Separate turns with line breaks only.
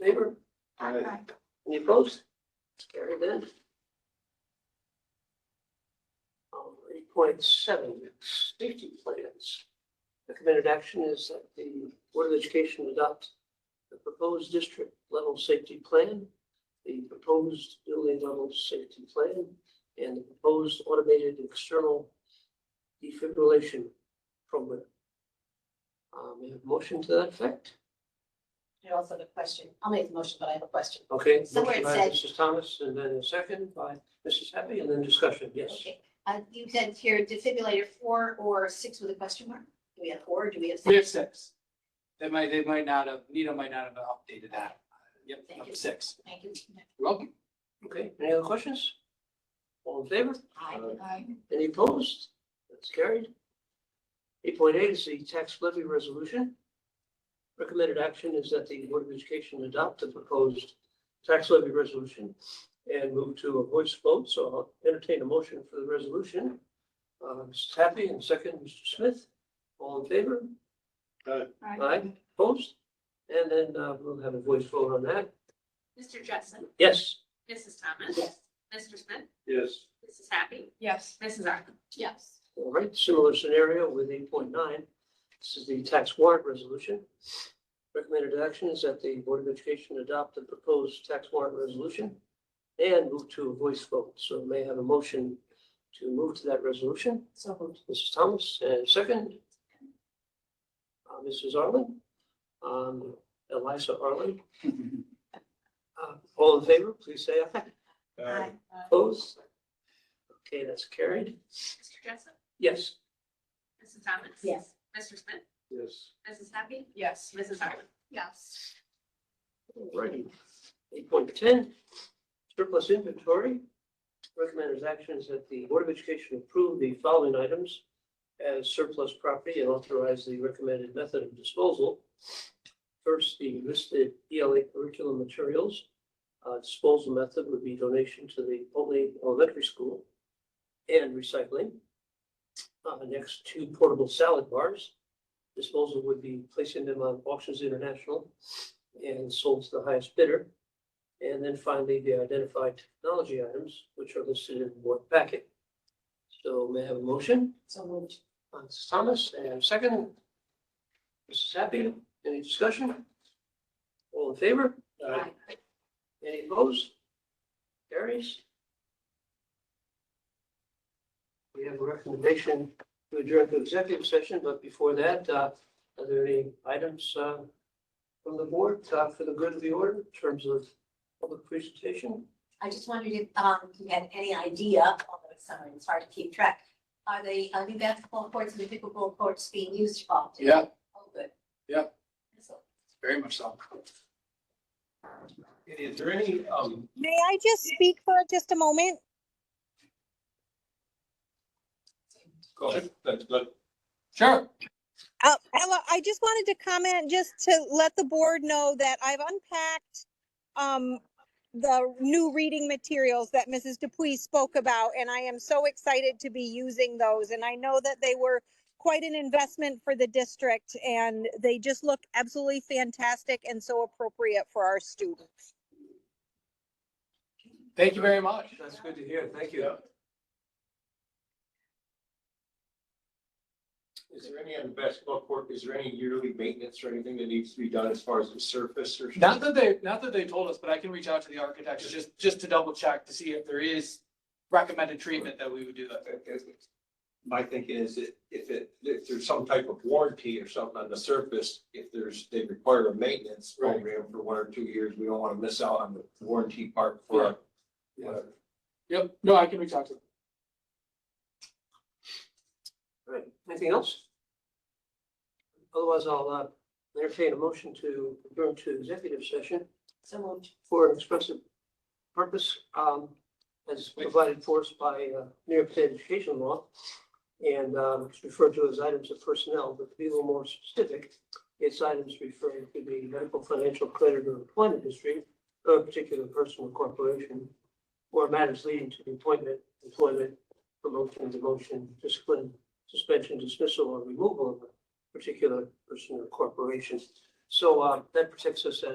favor?
Aye.
Any opposed? It's carried then. Eight Um, point seven, safety plans. Recommended action is that the Board of Education adopt the proposed district level safety plan, the proposed building level safety plan, and the proposed automated external defibrillation program. Um, we have a motion to that effect?
And also the question, I'll make the motion, but I have a question.
Okay,
Somewhere
motion
it
by
said-
Mrs. Thomas, and then a second by Mrs. Happy, and then discussion, yes.
Okay, uh, you said here defibrillator four or six with a question mark? Do we have four or do we have
We have
six?
six. They might, they might not have, Nita might not have updated that. Yep,
Thank
up
you.
to six.
Thank you.
You're Welcome.
Okay, any other questions? All in favor?
Aye.
Any opposed? That's carried. Eight point eight is the tax levy resolution. Recommended action is that the Board of Education adopt the proposed tax levy resolution and move to a voice vote, so I'll entertain a motion for the resolution. Uh, Mrs. Happy and second, Mr. Smith, all in favor? Aye, opposed? And then uh, we'll have a voice vote on that.
Mr. Jessen,
Yes?
Mrs. Thomas.
Yes.
Mr. Smith,
Yes.
Mrs. Happy,
Yes.
Mrs. Arthur.
Yes.
All right, similar scenario with eight point nine. This is the tax warrant resolution. Recommended action is that the Board of Education adopt the proposed tax warrant resolution and move to a voice vote. So may I have a motion to move to that resolution.
So moved.
Mrs. Thomas, and second. Uh, Mrs. Arlen, um, Eliza Arlen. Uh, all in favor, please say aye.
Aye.
Opposed? Okay, that's carried.
Mr. Jessen,
Yes.
Mrs. Thomas.
Yes.
Mr. Smith,
Yes.
Mrs. Happy,
Yes.
Mrs. Arthur.
Yes.
Alrighty, eight point ten, surplus inventory. Recommended actions that the Board of Education approve the following items as surplus property and authorize the recommended method of disposal. First, the listed ELA curriculum materials. Uh, disposal method would be donation to the Potley Elementary School and recycling. Uh, next, two portable salad bars. Disposal would be placing them on Auctions International and sold to the highest bidder. And then finally, the identified technology items, which are listed in the board packet. So may I have a motion?
So moved.
Uh, Mrs. Thomas, and second, Mrs. Happy, any discussion? All in favor?
Aye.
Any opposed? Carries? We have a recommendation to adjourn to executive session, but before that, uh, are there any items uh, from the board uh, for the good of the order in terms of public presentation?
I just wondered if, um, you had any idea, although it's summer, it's hard to keep track. Are the, uh, new basketball courts and the pickleball courts being used often?
Yeah,
Oh, good.
Yeah.
So-
very much so.
Is there any, um,
May I just speak for just a moment?
go ahead, that's good.
Sure.
Uh, Ella, I just wanted to comment just to let the board know that I've unpacked um, the new reading materials that Mrs. Dupuis spoke about, and I am so excited to be using those. And I know that they were quite an investment for the district, and they just look absolutely fantastic and so appropriate for our students.
Thank you very much.
That's good to hear, thank you.
Yeah. Is there any on the basketball court, is there any yearly maintenance or anything that needs to be done as far as the surface or?
Not that they, not that they told us, but I can reach out to the architects just, just to double check to see if there is recommended treatment that we would do that.
My thinking is that if it, if there's some type of warranty or something on the surface, if there's, they require a maintenance
Right.
program for one or two years, we don't want to miss out on the warranty part for.
Yeah.
whatever.
Yep, no, I can reach out to them.
All right, anything else? Otherwise, I'll uh, entertain a motion to adjourn to executive session
So moved.
for an expressive purpose, um, as provided for us by, uh, New York State Education Law. And, um, it's referred to as items of personnel, but to be a little more specific, it's items referring to the medical, financial, credit, or employment history of a particular person or corporation, or matters leading to the appointment, employment, promotion, demotion, discipline, suspension, dismissal, or removal of a particular person or corporation. So, uh, that protects us as